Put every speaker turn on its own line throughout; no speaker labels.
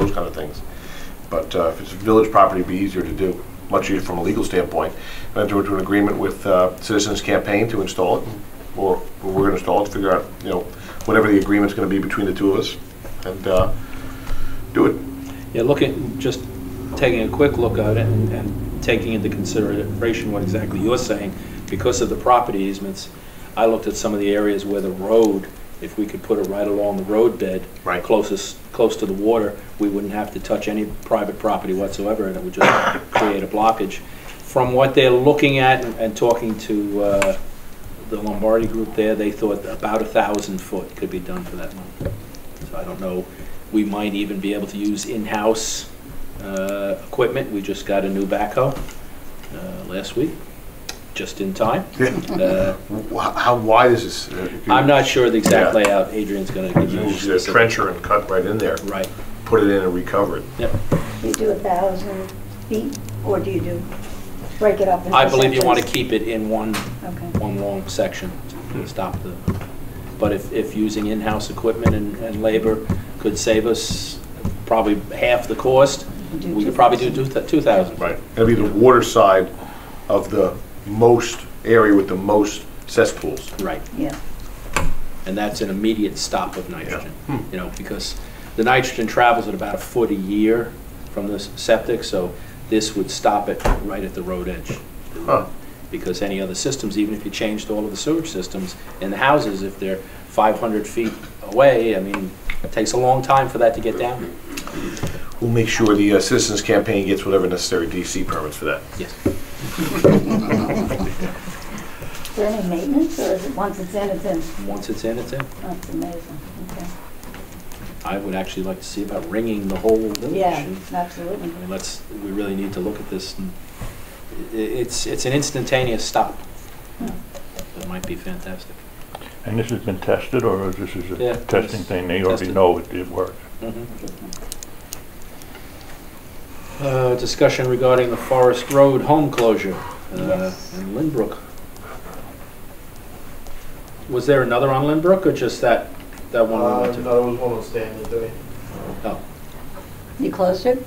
those kind of things. But uh, if it's village property, it'd be easier to do, much easier from a legal standpoint. And enter into an agreement with uh, Citizens Campaign to install it, or we're going to install it, figure out, you know, whatever the agreement's going to be between the two of us, and uh, do it.
Yeah, looking, just taking a quick look at it and- and taking into consideration what exactly you're saying, because of the property easements, I looked at some of the areas where the road, if we could put it right along the road bed,
Right.
closest, close to the water, we wouldn't have to touch any private property whatsoever, and it would just create a blockage. From what they're looking at and- and talking to uh, the Lombardi group there, they thought about a thousand foot could be done for that money. So I don't know, we might even be able to use in-house uh, equipment. We just got a new backhoe uh, last week, just in time. Uh,
Wh- How wide is this? Uh, if you-
I'm not sure the exact
Yeah. uh,
layout, Adrian's gonna give
You should
you.
just
specific-
trench her and cut right in there,
Right,
put it in and recover it.
yep.
You do a thousand feet, or do you do, break it up into
I believe you want to
sections?
keep it in one,
Okay.
one long section
Hmm.
to stop the, but if, if using in-house equipment and, and labor could save us probably half the cost,
Do
we could probably do two- 2,000.
Right. It'll be the water side of the most area with the most cesspools.
Right.
Yeah,
and that's an immediate stop of nitrogen. You know, because the nitrogen travels at about a foot a year from the s- septic, so this would stop it right at the road edge.
Huh.
Because any other systems, even if you changed all of the sewage systems in the houses, if they're 500 feet away, I mean, it takes a long time for that to get down. there.
We'll make sure the uh, Citizens Campaign gets whatever necessary DC permits for that.
Yes.
is there any maintenance, or is it, once it's in, it's in?
Once it's in, it's in.
That's amazing, okay.
I would actually like to see about ringing the whole village.
Yeah,
and-
absolutely.
I mean, let's, we really need to look at this. and i- i- It's, it's an instantaneous stop. That might be fantastic.
And this has been tested, or this is
Yeah,
a testing
it's
thing, they already
tested.
know it, it works?
Uh, Discussion regarding the Forest Road home closure uh,
Yes.
in Lynbrook. Was there another on Lynbrook or just that, that one we
Uh,
went to?
no, it was one on Stanley Day.
Oh,
You closed it?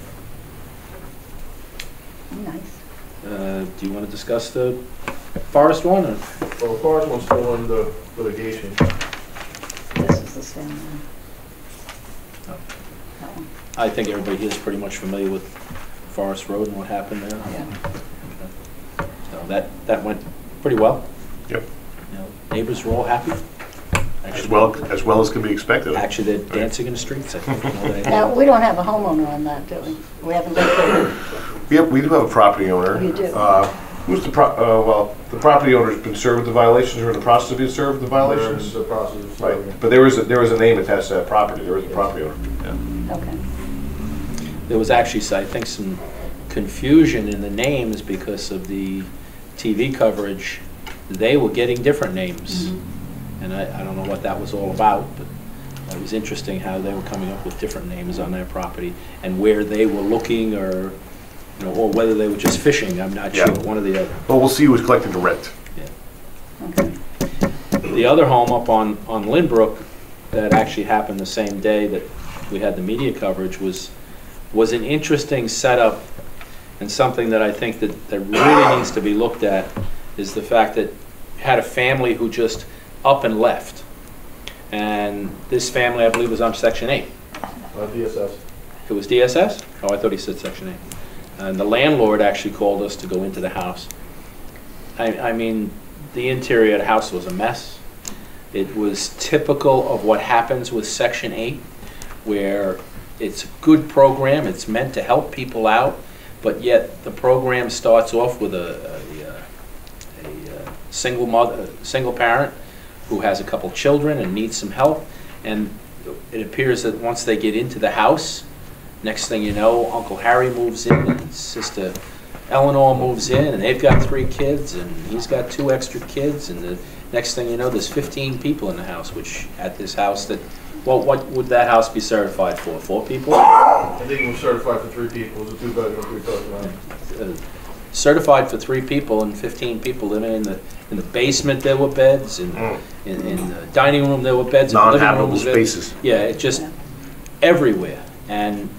Nice.
uh, Do you want to discuss the Forest one or?
Well, the first one's still under litigation.
This is the same one.
Oh.
That one,
I think everybody here is pretty much familiar with Forest Road and what happened there.
yeah.
So that, that went pretty well.
Yep.
You know, Neighbors were all happy.
As
Actually,
well, as well as can be expected.
Actually, they're dancing in the streets, I think. you know, they-
Now, we don't have a homeowner on that, do we? We haven't looked at it.
Yep, we do have a property owner.
You do.
Uh, Who's the pro, uh, well, the property owner's been served with the violations or in the process of being served with the violations?
There's a process of
Right,
serving.
but there was, a- there was a name attached to that property, there was a property owner.
Okay.
There was actually, so I think, some confusion in the names because of the TV coverage. They were getting different names. And I, I don't know what that was all about, but it was interesting how they were coming up with different names on their property and where they were looking or, you know, or whether they were just fishing, I'm not
Yeah.
sure, one or the other.
Well, we'll see who's collecting the rent.
The other home up on, on Lynbrook that actually happened the same day that we had the media coverage was, was an interesting setup and something that I think that, that really needs to be looked at is the fact that had a family who just up and left. And this family, I believe, was on section eight.
Uh, DSS.
It was DSS? Oh, I thought he said Section 8. And the landlord actually called us to go into the house. I, I mean, the interior of the house was a mess. It was typical of what happens with Section 8, where it's a good program, it's meant to help people out, but yet the program starts off with a, a, uh, a uh, single mother, a single parent who has a couple children and needs some help. And it appears that once they get into the house, next thing you know, Uncle Harry moves in, and Sister Eleanor moves in, and they've got three kids, and he's got two extra kids, and the next thing you know, there's 15 people in the house, which, at this house, that, well, what would that house be certified for? Four people? Uh,
I think it was certified for three people, it was a two-bedroom, three-bedroom.
uh, certified for three people and 15 people living in the, in the basement, there were beds, in, in in the dining room, there were beds. in the living room,
Non-habitable
there-
spaces.
Yeah, it just, everywhere. And